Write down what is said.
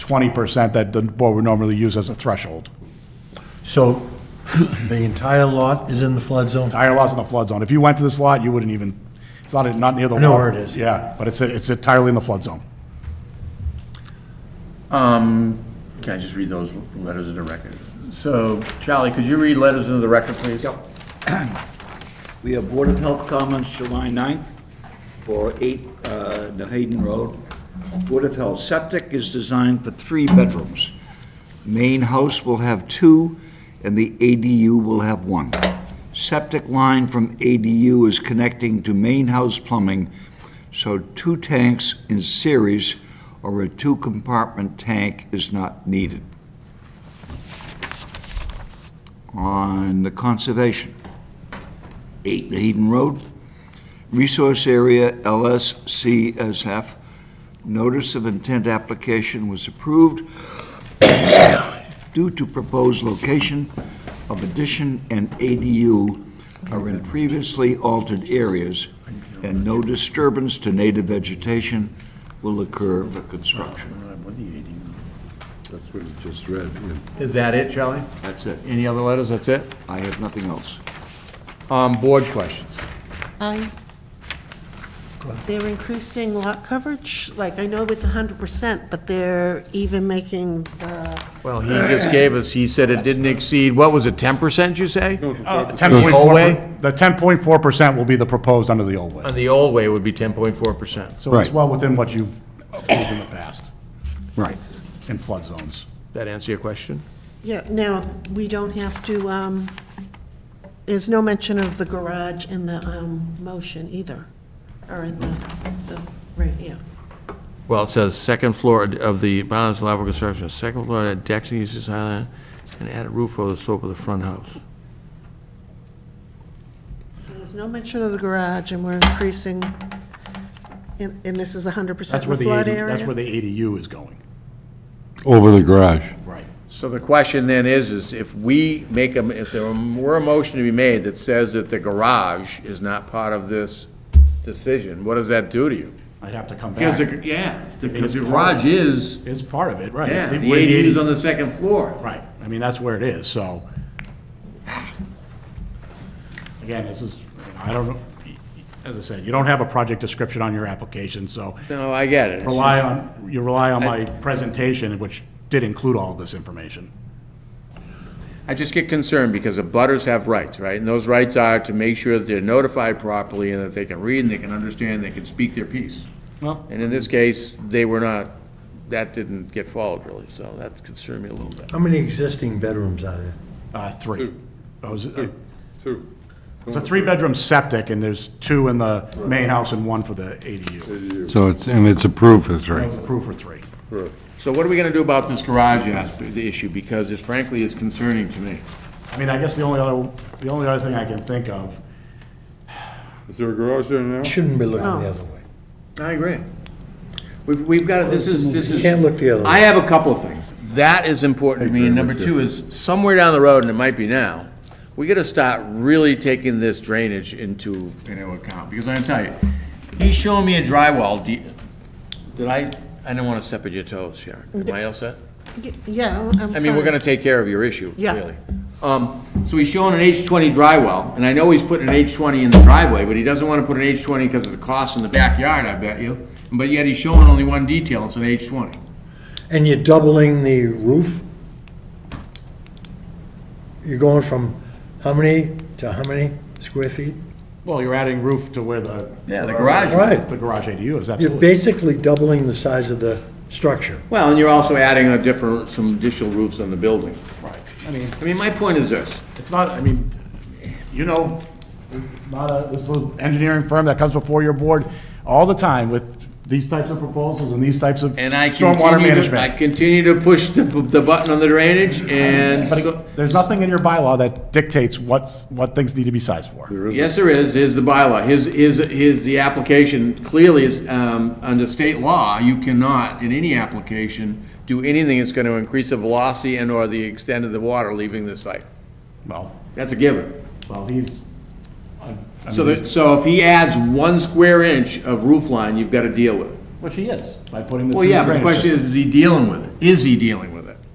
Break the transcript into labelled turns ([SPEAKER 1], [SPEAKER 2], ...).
[SPEAKER 1] 20% that the board would normally use as a threshold.
[SPEAKER 2] So the entire lot is in the flood zone?
[SPEAKER 1] Entire lot's in the flood zone. If you went to this lot, you wouldn't even, it's not, not near the
[SPEAKER 2] I
[SPEAKER 1] water.
[SPEAKER 2] know where it is.
[SPEAKER 1] Yeah, but it's, it's entirely in the flood zone.
[SPEAKER 3] Can I just read those letters into the record? So, Charlie, could you read letters into the record, please? Yep.
[SPEAKER 4] We have Board of Health comments July 9th for 8 uh, New Hayden Road. Board of Health septic is designed for three bedrooms. Main house will have two, and the ADU will have one. Septic line from ADU is connecting to main house plumbing, so two tanks in series or a two-compartment tank is not needed. On the conservation, 8 Hayden Road. Resource Area LSCSF. Notice of intent application was approved due to proposed location of addition and ADU are in previously altered areas, and no disturbance to native vegetation will occur for construction.
[SPEAKER 5] That's what you just read. yeah.
[SPEAKER 3] Is that it, Charlie?
[SPEAKER 4] That's it.
[SPEAKER 3] Any other letters? That's it?
[SPEAKER 4] I have nothing else.
[SPEAKER 3] Um, board questions?
[SPEAKER 6] I, they're increasing lot coverage, like, I know it's hundred percent, but they're even making the,
[SPEAKER 3] Well, he just gave us, he said it didn't exceed, what was it, ten percent, you say? Uh,
[SPEAKER 1] The 10.4
[SPEAKER 3] The old way?
[SPEAKER 1] The 10.4% will be the proposed under the old way.
[SPEAKER 3] And the old way would be ten point four percent.
[SPEAKER 1] So it's
[SPEAKER 5] Right.
[SPEAKER 1] well within what you've approved in the past
[SPEAKER 5] Right.
[SPEAKER 1] in flood zones.
[SPEAKER 3] That answer your question?
[SPEAKER 6] yeah, now, we don't have to, um, there's no mention of the garage in the, um, motion either, or in the, the, right, yeah.
[SPEAKER 3] Well, it says second floor of the bottom level construction, second floor decks and uses island, and add a roof over the slope of the front house.
[SPEAKER 6] So There's no mention of the garage, and we're increasing, and, and this is hundred percent
[SPEAKER 1] That's where
[SPEAKER 6] the
[SPEAKER 1] the,
[SPEAKER 6] flood
[SPEAKER 1] 80
[SPEAKER 6] area?
[SPEAKER 1] that's where the ADU is going.
[SPEAKER 5] Over the garage.
[SPEAKER 1] Right.
[SPEAKER 3] So the question then is, is if we make a, if there were a motion to be made that says that the garage is not part of this decision, what does that do to you?
[SPEAKER 1] I'd have to come
[SPEAKER 3] Because,
[SPEAKER 1] back.
[SPEAKER 3] the- yeah, because the garage is,
[SPEAKER 1] It's part of it, right.
[SPEAKER 3] yeah,
[SPEAKER 1] It's
[SPEAKER 3] the
[SPEAKER 1] where the
[SPEAKER 3] ADU's
[SPEAKER 1] 80
[SPEAKER 3] on the second floor.
[SPEAKER 1] Right, I mean, that's where it is, so. Again, this is, I don't, know. as I said, you don't have a project description on your application, so
[SPEAKER 3] No, I get it.
[SPEAKER 1] rely on, you rely on my presentation, which did include all this information.
[SPEAKER 3] I just get concerned because the butters have rights, right? And those rights are to make sure that they're notified properly and that they can read and they can understand, they can speak their piece.
[SPEAKER 1] Well-
[SPEAKER 3] And in this case, they were not, that didn't get followed really, so that concerned me a little bit.
[SPEAKER 2] How many existing bedrooms are there?
[SPEAKER 1] Uh, three. That was-
[SPEAKER 5] Two.
[SPEAKER 1] It's a three-bedroom septic, and there's two in the main house and one for the ADU.
[SPEAKER 5] So it's, and it's approved, that's
[SPEAKER 1] That
[SPEAKER 5] right.
[SPEAKER 1] was approved for three.
[SPEAKER 3] So what are we gonna do about this garage aspect, the issue, because it frankly is concerning to me.
[SPEAKER 1] I mean, I guess the only other, the only other thing I can think of,
[SPEAKER 7] Is there a garage there now?
[SPEAKER 2] Shouldn't be looking the other way.
[SPEAKER 3] I agree. We've, we've got, this is, this
[SPEAKER 2] You
[SPEAKER 3] is.
[SPEAKER 2] can't look the other way.
[SPEAKER 3] I have a couple of things. That is important to me, and number two is, somewhere down the road, and it might be now, we gotta start really taking this drainage into, into account, because I'm telling you, he's showing me a drywall, de- did I, I don't wanna step on your toes, Sharon. Am I all set?
[SPEAKER 6] Y- Yeah, I'm
[SPEAKER 3] I mean, we're
[SPEAKER 6] fine.
[SPEAKER 3] gonna take care of your issue,
[SPEAKER 6] Yeah.
[SPEAKER 3] really. Um, so he's showing an H twenty drywall, and I know he's putting an H twenty in the driveway, but he doesn't wanna put an H twenty because of the cost in the backyard, I bet you. But yet he's showing only one detail, it's an H twenty.
[SPEAKER 2] And you're doubling the roof? You're going from how many to how many square feet?
[SPEAKER 1] well, you're adding roof to where the.
[SPEAKER 3] Yeah, the garage.
[SPEAKER 2] Right.
[SPEAKER 1] The garage ADU is,
[SPEAKER 2] You're
[SPEAKER 1] absolutely.
[SPEAKER 2] basically doubling the size of the structure.
[SPEAKER 3] Well, and you're also adding a different, some additional roofs on the building.
[SPEAKER 1] Right. I mean,
[SPEAKER 3] I mean, my point is this,
[SPEAKER 1] It's not, I mean, you know, it's not a, this little engineering firm that comes before your board all the time with these types of proposals and these types of
[SPEAKER 3] and I
[SPEAKER 1] stormwater
[SPEAKER 3] continue to, I
[SPEAKER 1] management.
[SPEAKER 3] continue to push the, the button on the drainage, and
[SPEAKER 1] But
[SPEAKER 3] so,
[SPEAKER 1] it- there's nothing in your bylaw that dictates what's, what things need to be sized for.
[SPEAKER 3] yes, there is, is the bylaw, his, his, his, the application clearly is, um, under state law, you cannot, in any application, do anything that's gonna increase the velocity and/or the extent of the water leaving the site.
[SPEAKER 1] Well,
[SPEAKER 3] That's a given.
[SPEAKER 1] well, he's,
[SPEAKER 3] So that, so if he adds one square inch of roof line, you've gotta deal with it.
[SPEAKER 1] which he is, by putting the.
[SPEAKER 3] Well,
[SPEAKER 1] two
[SPEAKER 3] yeah, but the
[SPEAKER 1] drainage
[SPEAKER 3] question
[SPEAKER 1] systems.
[SPEAKER 3] is, is he dealing with it? is he dealing with?